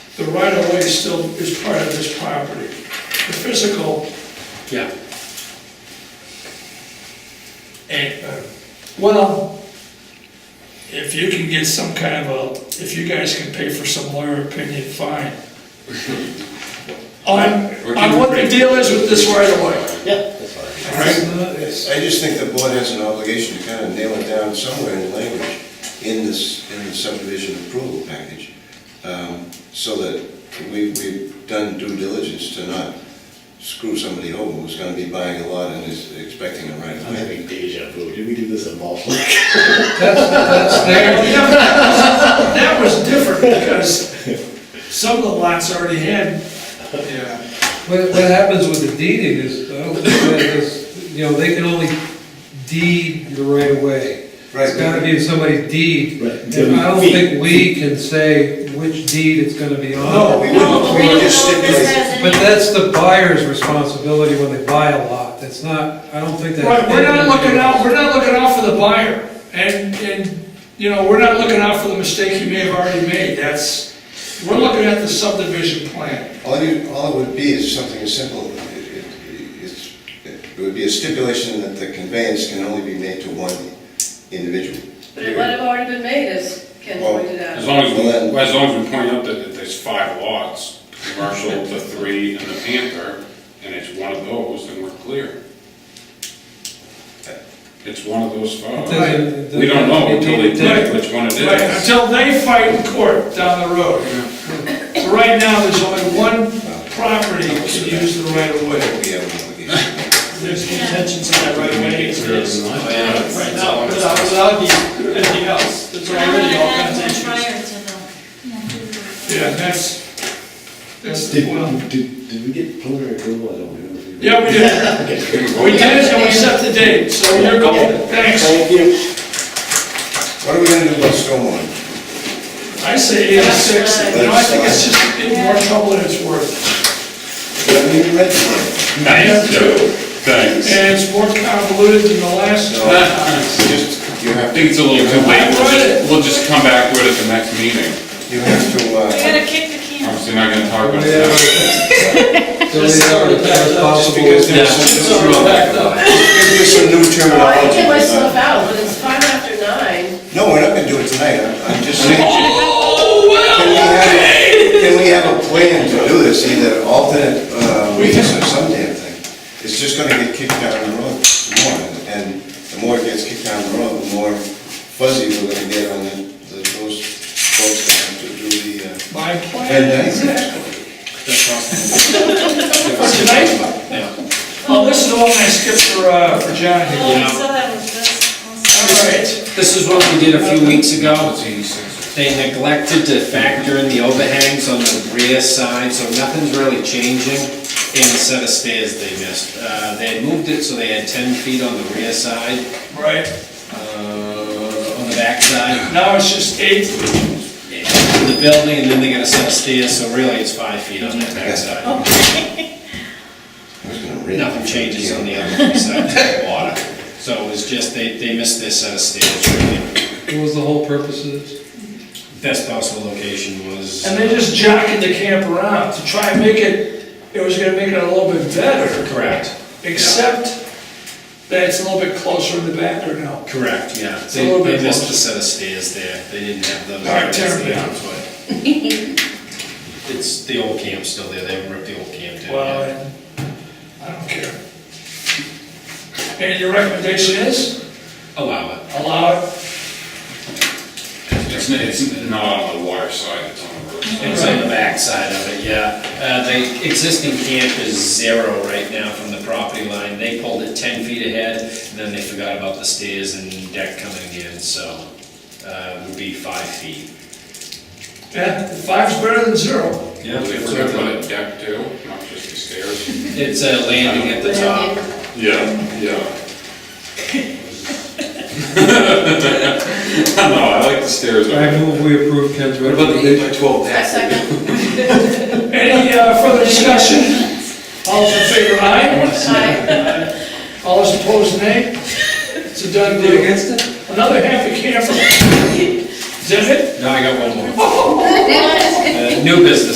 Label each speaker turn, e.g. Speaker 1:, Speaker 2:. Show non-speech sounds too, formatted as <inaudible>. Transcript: Speaker 1: the right of way still is part of this property. The physical,
Speaker 2: Yeah.
Speaker 1: eh, uh,
Speaker 2: Well,
Speaker 1: if you can get some kind of a, if you guys can pay for some lawyer opinion, fine. I'm, I'm what the deal is with this right of way.
Speaker 2: yeah,
Speaker 3: I just think the board has an obligation to kind of nail it down somewhere in language in this, in the subdivision approval package, um, so that we, we've done due diligence to not screw somebody over who's gonna be buying a lot and is expecting it right
Speaker 4: I'm
Speaker 3: away.
Speaker 4: having deja vu. Did we do this in Malt Lake?
Speaker 1: That <laughs> was different because some of the lots already had,
Speaker 5: What, what happens with the deeding is, I don't think that is, you know, they can only deed the right of way. It's
Speaker 3: Right.
Speaker 5: gotta be somebody's deed.
Speaker 4: Right.
Speaker 5: And I don't think we can say which deed it's gonna be
Speaker 3: No,
Speaker 5: on.
Speaker 3: we wouldn't, we would just stipulate.
Speaker 5: But that's the buyer's responsibility when they buy a lot, that's not, I don't think that.
Speaker 1: right, we're not looking out, we're not looking out for the buyer. And, and, you know, we're not looking out for the mistake he may have already made, that's, we're looking at the subdivision plan.
Speaker 3: All you, all it would be is something as simple, it, it, it's, it would be a stipulation that the conveyance can only be made to one individual.
Speaker 6: But it might have already been made, as Ken pointed
Speaker 2: as
Speaker 6: out.
Speaker 2: long as, we- as long as we point out that that there's five lots, commercial, the three, and the Panther, and it's one of those, then we're clear. It's one of those five.
Speaker 5: doesn't-
Speaker 2: We don't know until they
Speaker 5: Right.
Speaker 2: tell which one it
Speaker 1: Right,
Speaker 2: is.
Speaker 1: until they fight in court down the road. Right now, there's only one property can use the right of way.
Speaker 3: We have an obligation.
Speaker 7: There's contentions in that right away, it's, it's, right now, without, without the- anything else, there's already all kinds of issues.
Speaker 1: Yeah, that's, that's the one.
Speaker 4: Did, did, did we get preliminary approval? I don't remember.
Speaker 1: Yeah, we <laughs> did. We did, and we set the date, so you're golden, thanks.
Speaker 4: Thank you.
Speaker 3: What are we gonna do about stormwater?
Speaker 1: I say eight to six, you know, I think it's just getting more trouble than it's worth.
Speaker 3: We haven't even read it.
Speaker 1: Nice.
Speaker 2: Thanks.
Speaker 1: And it's more convoluted than the last
Speaker 3: No,
Speaker 1: one.
Speaker 3: it's just, you have,
Speaker 2: I think it's a little too late, we'll just, we'll just come back with it at the next meeting.
Speaker 3: you have to, uh,
Speaker 7: kick the can.
Speaker 2: Obviously not gonna talk
Speaker 5: Do
Speaker 2: about
Speaker 5: we
Speaker 2: it.
Speaker 5: have a- do we have a responsible?
Speaker 3: because there's some new, because there's some new
Speaker 6: Well, I can
Speaker 3: terminology.
Speaker 6: get myself out, but it's five after nine.
Speaker 3: No, we're not gonna do it tonight, I'm- I'm just saying.
Speaker 1: <laughs> Oh,
Speaker 3: Can we have, can we have a plan to do this, either alternate, uh, weeks or some damn thing? It's just gonna get kicked down the road more, and the more it gets kicked down the road, the more fuzzy we're gonna get on the, the- those folks that have to do the, uh,
Speaker 1: My plan,
Speaker 3: And-
Speaker 1: <laughs> exactly.
Speaker 3: the
Speaker 1: tonight? Oh, Well, this is the one I skipped for, uh, for John here.
Speaker 7: Well, so that was, that's.
Speaker 1: All right,
Speaker 8: This is what we did a few weeks ago.
Speaker 2: It's eighty-six.
Speaker 8: They neglected to factor in the overhangs on the rear side, so nothing's really changing in the set of stairs they missed. Uh, They had moved it so they had 10 feet on the rear side,
Speaker 1: right,
Speaker 8: uh, on the back side,
Speaker 1: now it's just eight,
Speaker 8: to the building, and then they got a set of stairs, so really it's five feet on that back side. <laughs> Nothing changes on the other side, just water. So it was just, they, they missed their set of stairs, really.
Speaker 5: What was the whole purpose of this?
Speaker 8: Best possible location was...
Speaker 1: and they just jocking the camp around to try and make it, it was gonna make it a little bit better.
Speaker 8: Correct.
Speaker 1: Except that it's a little bit closer in the back or no.
Speaker 8: Correct, yeah.
Speaker 1: a
Speaker 8: They
Speaker 1: little bit
Speaker 8: they missed
Speaker 1: closer.
Speaker 8: the set of stairs there. They didn't have those.
Speaker 1: All right, tear it
Speaker 8: Yeah,
Speaker 1: down. <laughs>
Speaker 8: but It's, the old camp's still there. They haven't ripped the old camp down
Speaker 1: Well,
Speaker 8: yet.
Speaker 1: and I don't care. And your recommendation is
Speaker 8: Allow it.
Speaker 1: allow it?
Speaker 2: It's, it's not on the water side, it's on the road side.
Speaker 8: It's on the back side of it, yeah. Uh, the existing camp is zero right now from the property line. They pulled it ten feet ahead, and then they forgot about the stairs and deck coming in, so, uh, it would be five feet.
Speaker 1: Yeah, five's better than zero.
Speaker 8: Yeah.
Speaker 2: They forgot about a deck too, not just the stairs.
Speaker 8: It's a landing at the top.
Speaker 2: Yeah, <laughs> yeah. No, I like the stairs.
Speaker 5: I move we approve Ken's recommendation.
Speaker 3: by twelve
Speaker 6: A second.
Speaker 1: Any uh, further discussion? All those in favor, aye?
Speaker 6: Hi.
Speaker 1: All those opposed, nay? It's a done
Speaker 5: You
Speaker 1: deal.
Speaker 5: against it?
Speaker 1: Another half a camper. Is that it?
Speaker 8: No, I got one more.
Speaker 1: Oh,
Speaker 8: Uh, New business.